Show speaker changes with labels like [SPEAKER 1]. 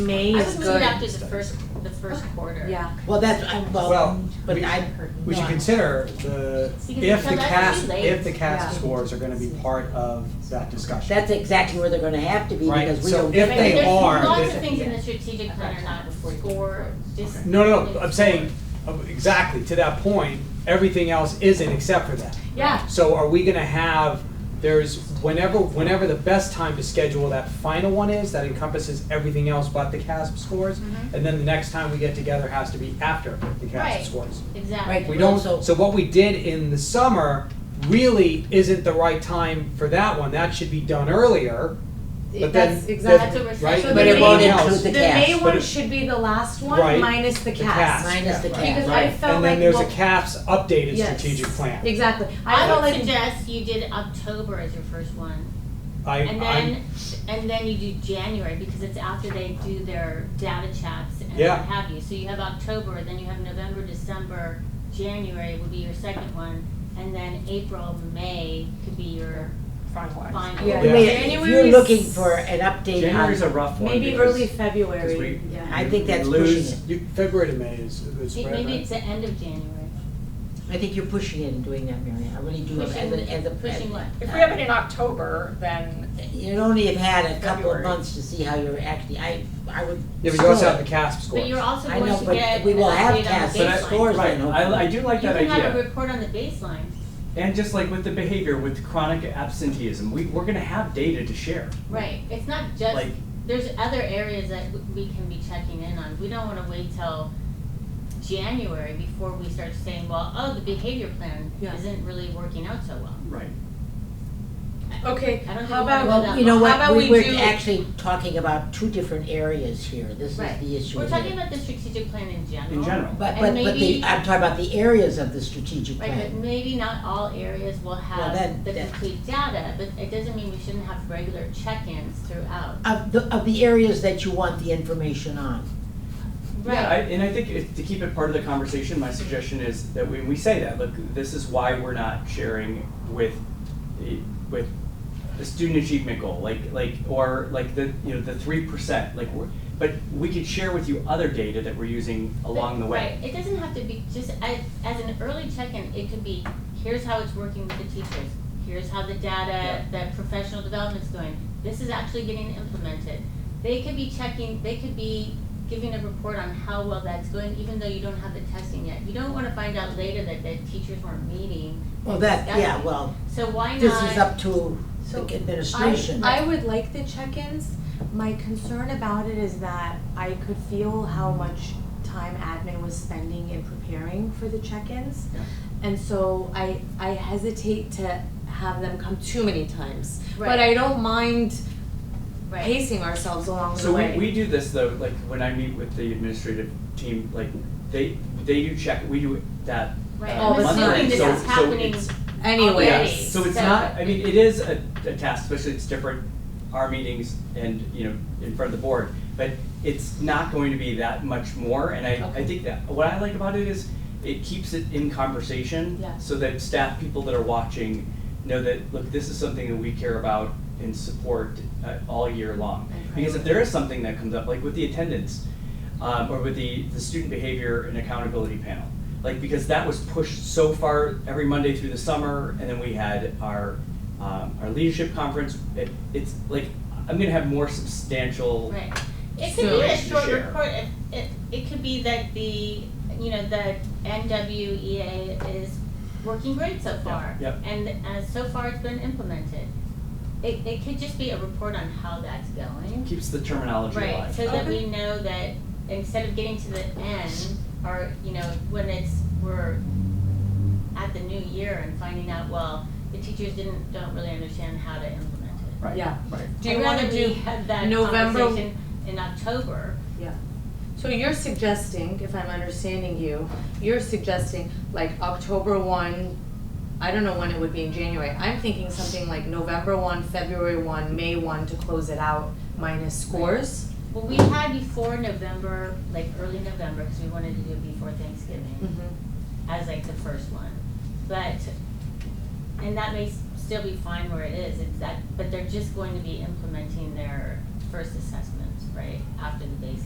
[SPEAKER 1] May
[SPEAKER 2] I
[SPEAKER 1] is
[SPEAKER 2] was moving
[SPEAKER 1] good.
[SPEAKER 2] after the first, the first quarter.
[SPEAKER 3] Yeah.
[SPEAKER 1] Well, that's, I'm, well,
[SPEAKER 4] Well,
[SPEAKER 1] but
[SPEAKER 4] we-
[SPEAKER 1] I.
[SPEAKER 4] We should consider the,
[SPEAKER 2] See, 'cause
[SPEAKER 4] if the
[SPEAKER 2] because I
[SPEAKER 4] CAS,
[SPEAKER 2] would be late.
[SPEAKER 4] if the
[SPEAKER 3] Yeah.
[SPEAKER 4] CAS scores are gonna be part of that discussion.
[SPEAKER 5] That's exactly where they're gonna have to be
[SPEAKER 4] Right,
[SPEAKER 5] because we
[SPEAKER 4] so
[SPEAKER 5] don't.
[SPEAKER 4] if
[SPEAKER 2] Right,
[SPEAKER 4] they
[SPEAKER 2] there's
[SPEAKER 4] are,
[SPEAKER 2] Lots
[SPEAKER 4] they-
[SPEAKER 2] of things in the strategic plan are not before, just.
[SPEAKER 4] No, no, no, I'm saying, uh, exactly, to that point, everything else isn't except for that.
[SPEAKER 2] Yeah,
[SPEAKER 4] So are we gonna have, there's, whenever, whenever the best time to schedule that final one is, that encompasses everything else but the CASP scores,
[SPEAKER 3] Mm-hmm.
[SPEAKER 2] Mhm.
[SPEAKER 4] and then the next time we get together has to be after the
[SPEAKER 2] Right.
[SPEAKER 4] CASP scores.
[SPEAKER 2] exactly.
[SPEAKER 5] Right.
[SPEAKER 4] We don't,
[SPEAKER 5] So-
[SPEAKER 4] so what we did in the summer really isn't the right time for that one, that should be done earlier, but then.
[SPEAKER 3] That's
[SPEAKER 2] That's
[SPEAKER 3] exactly.
[SPEAKER 2] what we're
[SPEAKER 4] Right?
[SPEAKER 2] saying.
[SPEAKER 3] But it
[SPEAKER 4] everything
[SPEAKER 3] won't
[SPEAKER 5] include
[SPEAKER 4] else-
[SPEAKER 5] the
[SPEAKER 3] The May
[SPEAKER 5] cast.
[SPEAKER 3] one
[SPEAKER 4] But it-
[SPEAKER 3] should be the last
[SPEAKER 4] Right.
[SPEAKER 3] one, minus the
[SPEAKER 4] The
[SPEAKER 3] cast.
[SPEAKER 4] cast.
[SPEAKER 5] Minus the
[SPEAKER 3] Because
[SPEAKER 5] cap.
[SPEAKER 3] I
[SPEAKER 4] Right.
[SPEAKER 3] felt like,
[SPEAKER 4] And then there's
[SPEAKER 3] well-
[SPEAKER 4] a CAPS updated
[SPEAKER 3] Yes.
[SPEAKER 4] strategic plan.
[SPEAKER 3] Exactly. I felt
[SPEAKER 2] I would
[SPEAKER 3] like,
[SPEAKER 2] suggest you did October as your first one,
[SPEAKER 4] I,
[SPEAKER 2] and
[SPEAKER 4] I'm,
[SPEAKER 2] then, and then you do January, because it's after they do their data chats and
[SPEAKER 4] Yeah.
[SPEAKER 2] what have you. So you have October, then you have November, December, January would be your second one, and then April, May could be your final.
[SPEAKER 3] Yeah.
[SPEAKER 5] Wait, If you're
[SPEAKER 3] January's-
[SPEAKER 5] looking for an update
[SPEAKER 6] January's
[SPEAKER 5] on,
[SPEAKER 6] a rough one.
[SPEAKER 3] maybe
[SPEAKER 6] because-
[SPEAKER 3] early February.
[SPEAKER 6] because we-
[SPEAKER 3] Yeah.
[SPEAKER 5] I think
[SPEAKER 6] we
[SPEAKER 5] that's
[SPEAKER 6] lose-
[SPEAKER 5] pushing
[SPEAKER 4] you, February to May is, is
[SPEAKER 2] May-
[SPEAKER 4] right,
[SPEAKER 2] Maybe
[SPEAKER 4] right?
[SPEAKER 2] it's the end of January.
[SPEAKER 5] it. I think you're pushing it and doing that, Mary. I really do. as
[SPEAKER 2] Pushing-
[SPEAKER 5] a- as a-
[SPEAKER 2] Pushing what?
[SPEAKER 7] If we have it in October, then
[SPEAKER 5] You'd only have had a couple of
[SPEAKER 7] February.
[SPEAKER 5] months to see how you're acting. I, I would.
[SPEAKER 4] Yeah, but you also
[SPEAKER 5] still-
[SPEAKER 4] have the CASP scores.
[SPEAKER 2] But you're also
[SPEAKER 5] I
[SPEAKER 2] going
[SPEAKER 5] know,
[SPEAKER 2] to
[SPEAKER 5] but
[SPEAKER 2] get
[SPEAKER 5] we will
[SPEAKER 2] an
[SPEAKER 5] have
[SPEAKER 2] update on
[SPEAKER 5] cast
[SPEAKER 2] the
[SPEAKER 6] But I-
[SPEAKER 5] scores
[SPEAKER 6] Right,
[SPEAKER 5] then.
[SPEAKER 6] I, I do like that
[SPEAKER 2] You can have a
[SPEAKER 6] idea.
[SPEAKER 2] report on the baselines,
[SPEAKER 6] And just like with the behavior, with chronic absenteeism, we, we're gonna have data to share.
[SPEAKER 2] right, it's not just,
[SPEAKER 6] Like,
[SPEAKER 2] there's other areas that w- we can be checking in on, we don't wanna wait till January before we start saying, well, oh, the behavior plan
[SPEAKER 3] Yeah.
[SPEAKER 2] isn't really working out so well.
[SPEAKER 6] right.
[SPEAKER 3] Okay,
[SPEAKER 2] I don't
[SPEAKER 3] how
[SPEAKER 2] think we can go
[SPEAKER 3] about,
[SPEAKER 2] that
[SPEAKER 5] Well, you know
[SPEAKER 3] How
[SPEAKER 5] what,
[SPEAKER 3] about
[SPEAKER 5] we
[SPEAKER 3] we
[SPEAKER 5] were
[SPEAKER 3] do-
[SPEAKER 5] actually talking about two different areas here. This is
[SPEAKER 2] Right.
[SPEAKER 5] the issue.
[SPEAKER 2] We're
[SPEAKER 5] here.
[SPEAKER 2] talking about the strategic plan in general.
[SPEAKER 6] In general.
[SPEAKER 5] But,
[SPEAKER 2] and
[SPEAKER 5] but, but the,
[SPEAKER 2] maybe-
[SPEAKER 5] I'm talking about the areas of the strategic
[SPEAKER 2] Right, but
[SPEAKER 5] plan.
[SPEAKER 2] maybe not all areas will
[SPEAKER 5] that-
[SPEAKER 2] have the
[SPEAKER 5] that-
[SPEAKER 2] complete data, but it doesn't mean we shouldn't have regular check-ins throughout.
[SPEAKER 5] Of the, of the areas that you want the information on.
[SPEAKER 6] Yeah, I, and I think if, to keep it part of the conversation, my suggestion is that when we say that, look, this is why we're not sharing with, the- with the student achievement goal, like, like, or like the, you know, the three percent, like, we're, but we could share with you other data that we're using along the way.
[SPEAKER 2] Right, it doesn't have to be, just as, as an early check-in, it could be, here's how it's working with the teachers, here's how the data, the professional development's going, this is actually getting implemented. They could be checking, they could be giving a report on how well that's going, even though you don't have the testing yet. You don't wanna find out later that the teachers weren't meeting,
[SPEAKER 5] Well, that, yeah,
[SPEAKER 2] Exactly.
[SPEAKER 5] well,
[SPEAKER 2] so why not?
[SPEAKER 5] this is up to the
[SPEAKER 3] So,
[SPEAKER 5] administration.
[SPEAKER 3] I, I would like the check-ins. My concern about it is that I could feel how much time admin was spending in preparing for the check-ins.
[SPEAKER 6] Yeah.
[SPEAKER 3] And so I, I hesitate to have them come too many times. But
[SPEAKER 2] Right.
[SPEAKER 3] I don't mind
[SPEAKER 2] Right.
[SPEAKER 3] pacing ourselves along the
[SPEAKER 6] So we,
[SPEAKER 3] way.
[SPEAKER 6] we do this though, like when I meet with the administrative team, like they, they do check, we do that
[SPEAKER 2] Right,
[SPEAKER 6] uh,
[SPEAKER 3] Oh,
[SPEAKER 2] I'm
[SPEAKER 3] it's not-
[SPEAKER 2] assuming
[SPEAKER 6] monthly,
[SPEAKER 2] this
[SPEAKER 6] so,
[SPEAKER 2] is
[SPEAKER 6] so
[SPEAKER 2] happening,
[SPEAKER 6] it's,
[SPEAKER 3] Anyway.
[SPEAKER 6] yeah,
[SPEAKER 2] Already.
[SPEAKER 6] so it's
[SPEAKER 2] So-
[SPEAKER 6] not, I mean, it is a, a task, especially it's different, our meetings and, you know, in front of the board. But it's not going to be that much more, and I, I think that, what I like about it is it keeps it in conversation.
[SPEAKER 3] Yeah.
[SPEAKER 6] So that staff, people that are watching know that, look, this is something that we care about and support uh, all year long.
[SPEAKER 3] And
[SPEAKER 6] Because if there is something that comes up, like with the attendance, um, or with the, the student behavior and accountability panel, like, because that was pushed so far every Monday through the summer, and then we had our, um, our leadership conference, it, it's like, I'm gonna have more substantial,
[SPEAKER 2] Right. It could be a
[SPEAKER 6] Stories to
[SPEAKER 2] short
[SPEAKER 6] share.
[SPEAKER 2] report, it, it, it could be that the, you know, the NWEA is working great so far.
[SPEAKER 6] yep.
[SPEAKER 2] And, uh, so far it's been implemented. It, it could just be a report on how that's going.
[SPEAKER 6] keeps the terminology alive.
[SPEAKER 2] Right, so that we know that instead of getting to the end, or, you know, when it's, we're at the new year and finding out, well, the teachers didn't, don't really understand how to implement it.
[SPEAKER 6] Right,
[SPEAKER 3] Yeah.
[SPEAKER 6] right.
[SPEAKER 3] Do you wanna
[SPEAKER 2] I'd rather we
[SPEAKER 3] do,
[SPEAKER 2] had that
[SPEAKER 3] November-
[SPEAKER 2] conversation in October.
[SPEAKER 3] so you're suggesting, if I'm understanding you, you're suggesting like October one, I don't know when it would be in January. I'm thinking something like November one, February one, May one to close it out minus scores.
[SPEAKER 2] Well, we had before November, like early November, because we wanted to do it before
[SPEAKER 3] Mm.
[SPEAKER 2] Thanksgiving, as like the first one. But, and that may s- still be fine where it is, it's that, but they're just going to be implementing their first assessment. right, after the base